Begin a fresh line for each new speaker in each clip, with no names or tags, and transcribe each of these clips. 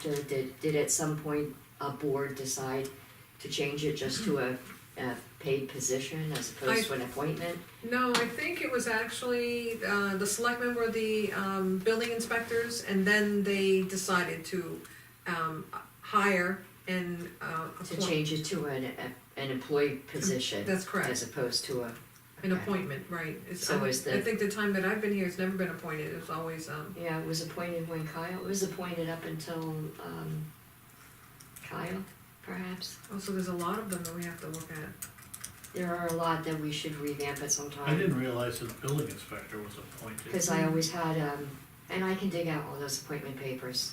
question, did, did at some point a board decide to change it just to a, a paid position as opposed to an appointment?
No, I think it was actually, uh, the selectmen were the, um, building inspectors, and then they decided to, um, hire and, uh,
To
appoint,
change it to an, a- an employee position?
That's correct.
As opposed to a. okay.
an appointment, right? It's-
So is
I
the-
think the time that I've been here, it's never been appointed, it's always, um,
Yeah, it was appointed when Kyle, it was appointed up until, um, Kyle, perhaps?
also, oh, there's a lot of them that we have to look at.
There are a lot that we should revamp at some time.
I didn't realize that the building inspector was appointed.
Cause I always had, um, and I can dig out all those appointment papers,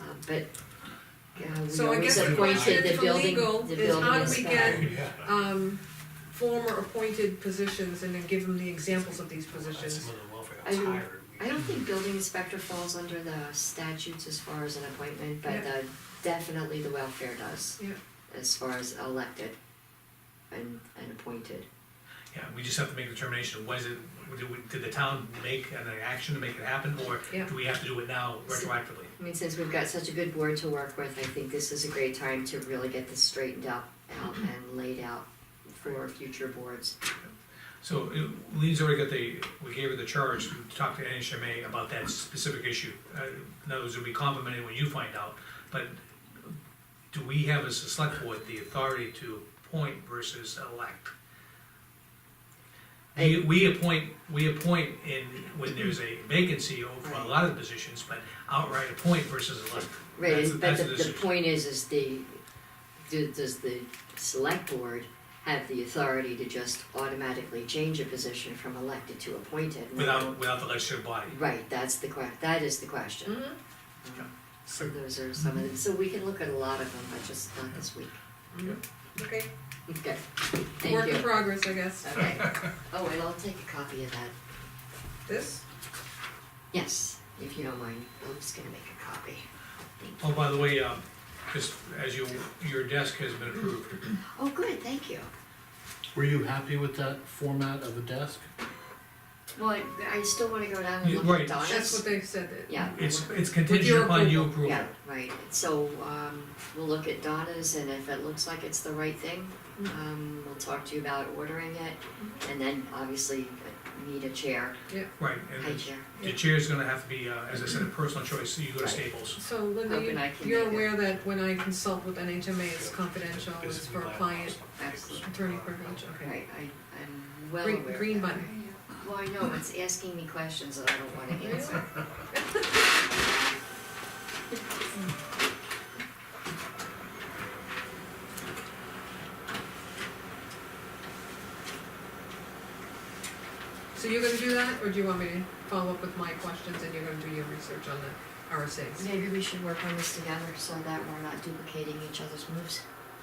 um, but, uh, we
So I
always
guess the
appointed
appointed
question
the
for
building,
legal
the
is
building
how do we
inspector.
get,
Yeah.
um, former appointed positions and then give them the examples of these
Some
positions.
of the welfare
I
was
don't-
hired.
I don't think building inspector falls under the statutes as far as an appointment, but
Yeah.
the, definitely the welfare does,
Yeah,
as far as elected and, and appointed.
Yeah, we just have to make a determination, was it, did we- did the town make an action to make it happen, or
Yeah.
do we have to do it now retroactively?
I mean, since we've got such a good board to work with, I think this is a great time to really get this straightened out, out
Mm-hmm.
and laid out for future boards.
So uh, Lee's already got the, we gave her the charge to talk to NHMA about that specific issue. Uh, In other words, it'll be complimented when you find out, but do we have as a select board the authority to appoint versus elect? We, we appoint, we appoint in, when there's a vacancy over a lot of positions, but outright appoint versus elect.
Right,
That's-
and- but
that's
the,
the
the
decision.
point is, is the, do- does the select board have the authority to just automatically change a position from elected to appointed? And
Without, without the legislative body.
Right, that's the que, that is the question.
Mhm.
Mm-hmm.
Um, So those are some of them, so we can look at a lot of them, but just not this week.
okay,
Okay, thank you.
work in progress, I guess.
Okay, oh, and I'll take a copy of that,
This,
yes, if you don't mind, I'm just gonna make a copy. Thank
Oh,
you.
by the way, um, just as you, your desk has been approved.
Oh, good, thank you.
Were you happy with that format of a desk?
Well, I, I still wanna go down and
Yeah,
look
right.
at Donna's.
that's what they said, that-
Yeah.
It's,
we'll-
it's contingent
your
upon you
approval.
approving.
Yeah, right, so, um, we'll look at Donna's and if it looks like it's the right thing,
Mm-hmm.
um, we'll talk to you about ordering it. And then obviously uh, need a chair,
Right, and
high
the-
chair.
the chair's gonna have to be, uh, as I said, a personal choice, so you go to
Right.
Staples.
So Linda,
Open eye
you- you're
contact.
aware that when I consult with NHMA, it's confidential, it's for client
Absolutely.
attorney privilege, okay?
Right, I, I'm well aware
Green,
of
green
that.
button,
Well, I know, it's asking me questions that I don't wanna answer.
so you're gonna do that, or do you want me to follow up with my questions and you're gonna do your research on the RSA's?
Maybe we should work on this together so that we're not duplicating each other's moves.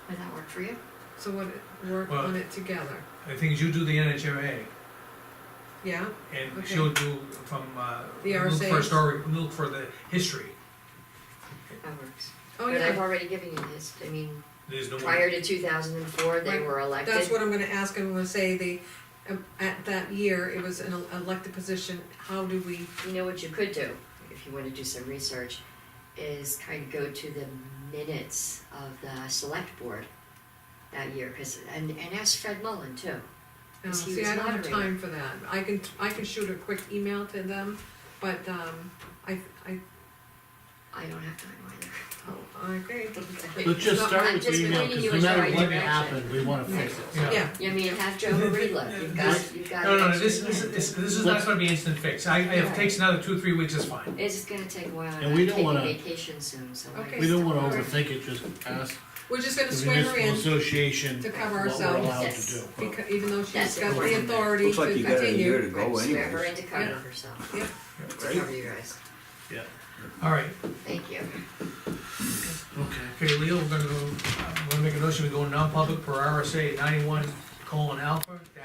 Would that work for you?
So what, work
Well-
on it together,
The thing is, you do the NHMA,
yeah,
and
Okay.
she'll do from, uh,
The
look for a
RSAs.
story, look for the history.
That works.
oh
But I've
yeah,
already given you this, I mean,
There's no
prior to
way,
two thousand and four, they
Right.
were elected.
that's what I'm gonna ask, I'm gonna say the, um, at that year, it was an elected position, how do we,
You know what you could do, if you wanna do some research, is kind of go to the minutes of the select board that year, cause, and, and ask Fred Mullen too.
uh,
Because he
see,
was
I don't have
moderator.
time for that, I can, I can shoot a quick email to them, but, um, I, I,
I don't have time either.
oh, okay,
Let's just
No,
start
I'm
with the
just
email,
pointing
because
you
no
in the
matter
right
what
direction.
happened, we wanna fix it.
yeah.
yeah.
You mean, have Joe reload, you've got, you've got.
No, no, no,
extra
this, this,
time.
this, this is not gonna be instant fix, I, if it takes another two, three weeks, it's fine.
It's just gonna take a while,
And we
I'm
don't wanna-
taking vacation soon, so I.
Okay.
We don't wanna
Alright.
overthink it, just ask
We're just
the
gonna swim her
municipal
in,
association
to
what
cover
we're
ourselves.
allowed
Yes.
to do.
becau- even though she's
That's
got
important.
the authority to
Looks like you got a year to
continue.
go
Swear her
anyways,
into covering
Yeah.
herself,
Yeah,
to
right?
cover you guys,
Yeah,
All right,
thank you.
okay.
okay, Leo, we're gonna go, I'm gonna make a notion, we go non-public per RSA ninety-one colon alpha,